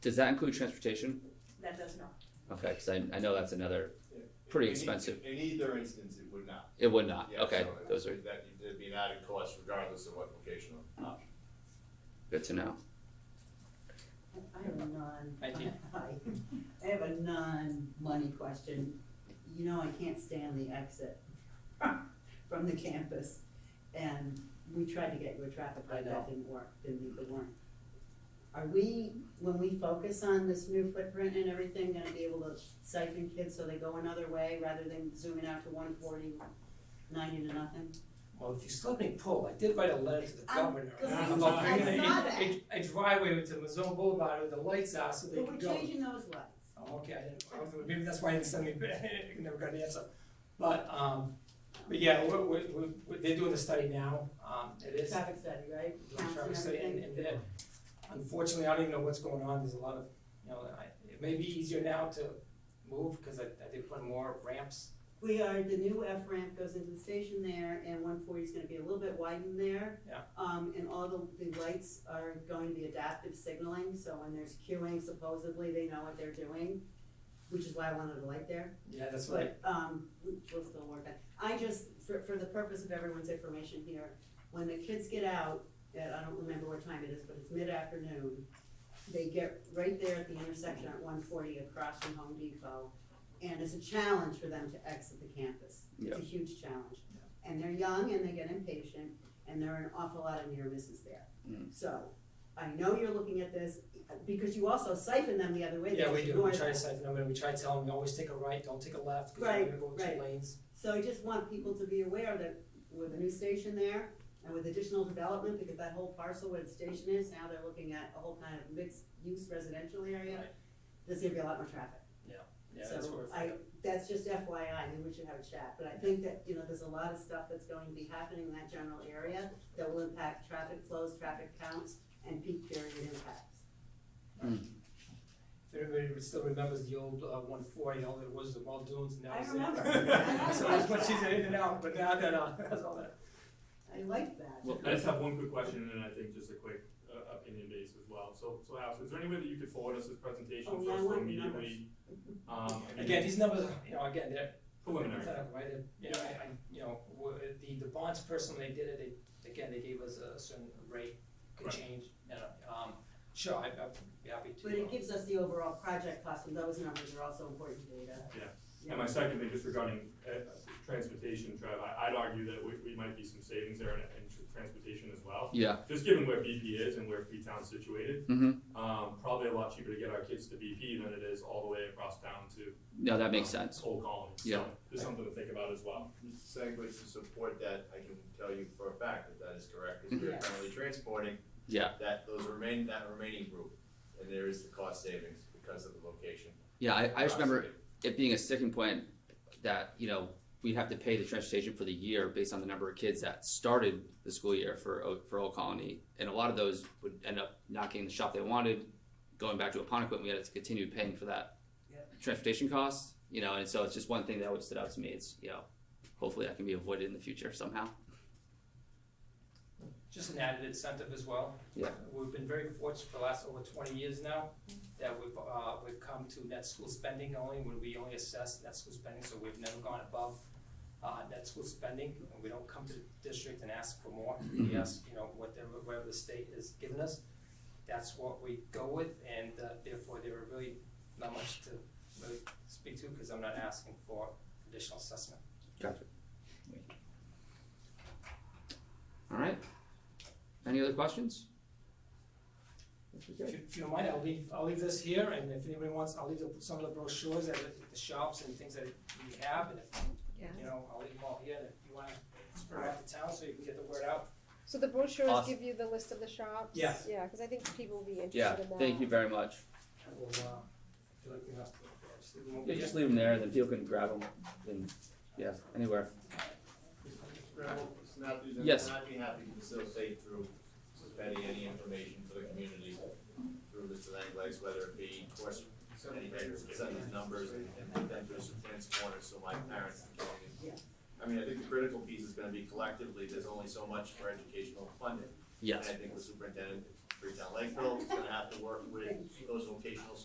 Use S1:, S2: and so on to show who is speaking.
S1: Does that include transportation?
S2: That does not.
S1: Okay, because I, I know that's another, Pretty
S3: In e-
S1: expensive.
S3: In either instance, it would not.
S1: it would not,
S3: Yeah,
S1: okay,
S3: so it-
S1: those are
S3: That, there'd be an added cost regardless of what vocational option.
S1: good to know.
S4: I have a non.
S5: I do.
S4: Hi. I have a non-money question. You know, I can't stand the exit from the campus. And we tried to get you a traffic
S5: I
S4: light,
S5: know.
S4: that didn't work, didn't meet the warrant. Are we, when we focus on this new footprint and everything, gonna be able to siphon kids so they go another way rather than zooming out to 140, 90 to nothing?
S6: Well, if you just let me pull, I did write a letter to the
S4: I'm
S6: governor.
S4: glad
S6: about
S4: you- I
S6: bringing
S4: saw
S6: a-
S4: that.
S6: A a driveway to Mazon Boulevard where the lights are so they
S4: But
S6: can
S4: we're
S6: go.
S4: changing those lights.
S6: Oh, okay, I didn't, I was- maybe that's why I didn't send me, I never got an answer. But, um, but yeah, we're, we're, we're- we're, they're doing the study now, um, it is.
S4: Traffic study, right?
S6: doing
S4: Counts
S6: traffic
S4: and
S6: study, and,
S4: everything.
S6: and then, unfortunately, I don't even know what's going on, there's a lot of, you know, I, it may be easier now to move, cause I, I did put more ramps.
S4: We are, the new F ramp goes into the station there, and one forty is gonna be a little bit widened there.
S6: Yeah.
S4: Um, and all the, the lights are going to be adaptive signaling, so when there's queuing supposedly, they know what they're doing, which is why I wanted a light there,
S6: Yeah, that's what I
S4: but, um, we- we'll still work on. I just, for, for the purpose of everyone's information here, when the kids get out, at, I don't remember what time it is, but it's mid-afternoon, they get right there at the intersection at one forty across from Home Depot, and it's a challenge for them to exit the campus. It's a huge challenge. And they're young and they get impatient and there are an awful lot of near misses there.
S1: Mm.
S4: So I know you're looking at this because you also siphon them the other way.
S6: Yeah,
S4: They
S6: we do,
S4: ignore
S6: we try to
S4: that.
S6: siphon them, and we try to tell them, always take a right, don't take a left, because
S4: Right,
S6: we're gonna go
S4: right.
S6: two lanes.
S4: So I just want people to be aware that with a new station there and with additional development, because that whole parcel where the station is, now they're looking at a whole kind of mixed use residential area.
S6: Right.
S4: There's gonna be a lot more traffic.
S6: Yeah, that's
S4: So
S6: where it's
S4: I,
S6: at.
S4: that's just FYI, and we should have a chat, but I think that, you know, there's a lot of stuff that's going to be happening in that general area that will impact traffic flows, traffic counts, and peak period impacts.
S6: If anybody still remembers the old uh, one forty, all there was the Muldoons, and that
S4: I
S6: was it.
S4: remember. I
S6: So
S4: like
S6: as much as
S4: that.
S6: in and out, but now, no, no, that's all that.
S4: I like that.
S1: Well,
S7: I just have one quick question and I think just a quick uh, opinion base as well. So, so Alex, is there any way that you could forward us this presentation
S4: Oh, yeah, I
S7: first so
S4: want
S7: immediately? Um, I mean,
S6: Again, these numbers, are, you know, again, they're
S7: Preliminary.
S6: hypothetical, right? They're- You know, I, I- you know, wha- the, the bonds person, when they did it, they, again, they gave us a certain rate, could
S7: Correct.
S6: change, you know, um, sure, I, I'd be happy to.
S4: But
S6: uh,
S4: it gives us the overall project cost, and those numbers are also important data.
S7: And my second thing, just regarding uh, transportation, Trev, I, I'd argue that we, we might be some savings there in, in tr- transportation as well.
S1: Yeah,
S7: Just given where BP is and where Freetown's situated,
S1: Mhm.
S7: um, probably a lot cheaper to get our kids to BP than it is all the way across town to.
S1: no, that makes
S7: um,
S1: sense.
S7: Old Colony. So
S1: Yeah.
S7: Just something to think about as well.
S3: Segues to support that, I can tell you for a fact that that is correct, because we're
S4: Mhm.
S3: currently transporting
S1: Yeah.
S3: that, those remain, that remaining group, and there is the cost savings because of the location.
S1: Yeah, I, I just
S3: Uh,
S1: remember it being a sticking point that, you know, we'd have to pay the transportation for the year based on the number of kids that started the school year for, O- for Old Colony. And a lot of those would end up not getting the shop they wanted, going back to Aponequid, and we had to continue paying for that transportation cost, you know, and so it's just one thing that always stood out to me. It's, you know, hopefully that can be avoided in the future somehow.
S6: just an added incentive as well.
S1: Yeah.
S6: We've been very fortunate for the last over twenty years now, that we've, uh, we've come to net school spending only, when we only assess net school spending, so we've never gone above, uh, net school spending, and we don't come to the district and ask for more, we ask, you know, whatever, whatever the state has given us, that's what we go with, and uh, therefore, there are really not much to really speak to, because I'm not asking for additional assessment.
S1: Gotcha. All right. Any other questions?
S6: If you, if you don't mind, I'll leave, I'll leave this here, and if anybody wants, I'll leave the- some of the brochures at the- the shops and things that we have, and if, you know, I'll leave them all here, and if you wanna spread out the town so you can get the word out.
S8: So the brochures
S1: Awesome.
S8: give you the list of the shops?
S6: Yeah.
S8: Yeah, because I think people will be
S1: Yeah,
S8: interested in that.
S1: thank you very much.
S6: We'll, uh, do it, you know, just leave them over
S1: Yeah,
S6: here.
S1: just leave them there, then people can grab them, and, yeah, anywhere.
S3: Snappy's,
S1: Yes.
S3: I'd be happy to facilitate through suspending any information for the community through Mr. Langlegs, whether it be, of course, any papers, send us numbers, and put them through some transporters, so my parents can get it.
S4: Yeah.
S3: I mean, I think the critical piece is gonna be collectively, there's only so much for educational funding. And
S1: Yes,
S3: I think the superintendent Freetown Lakeville, it's gonna have to work with those vocational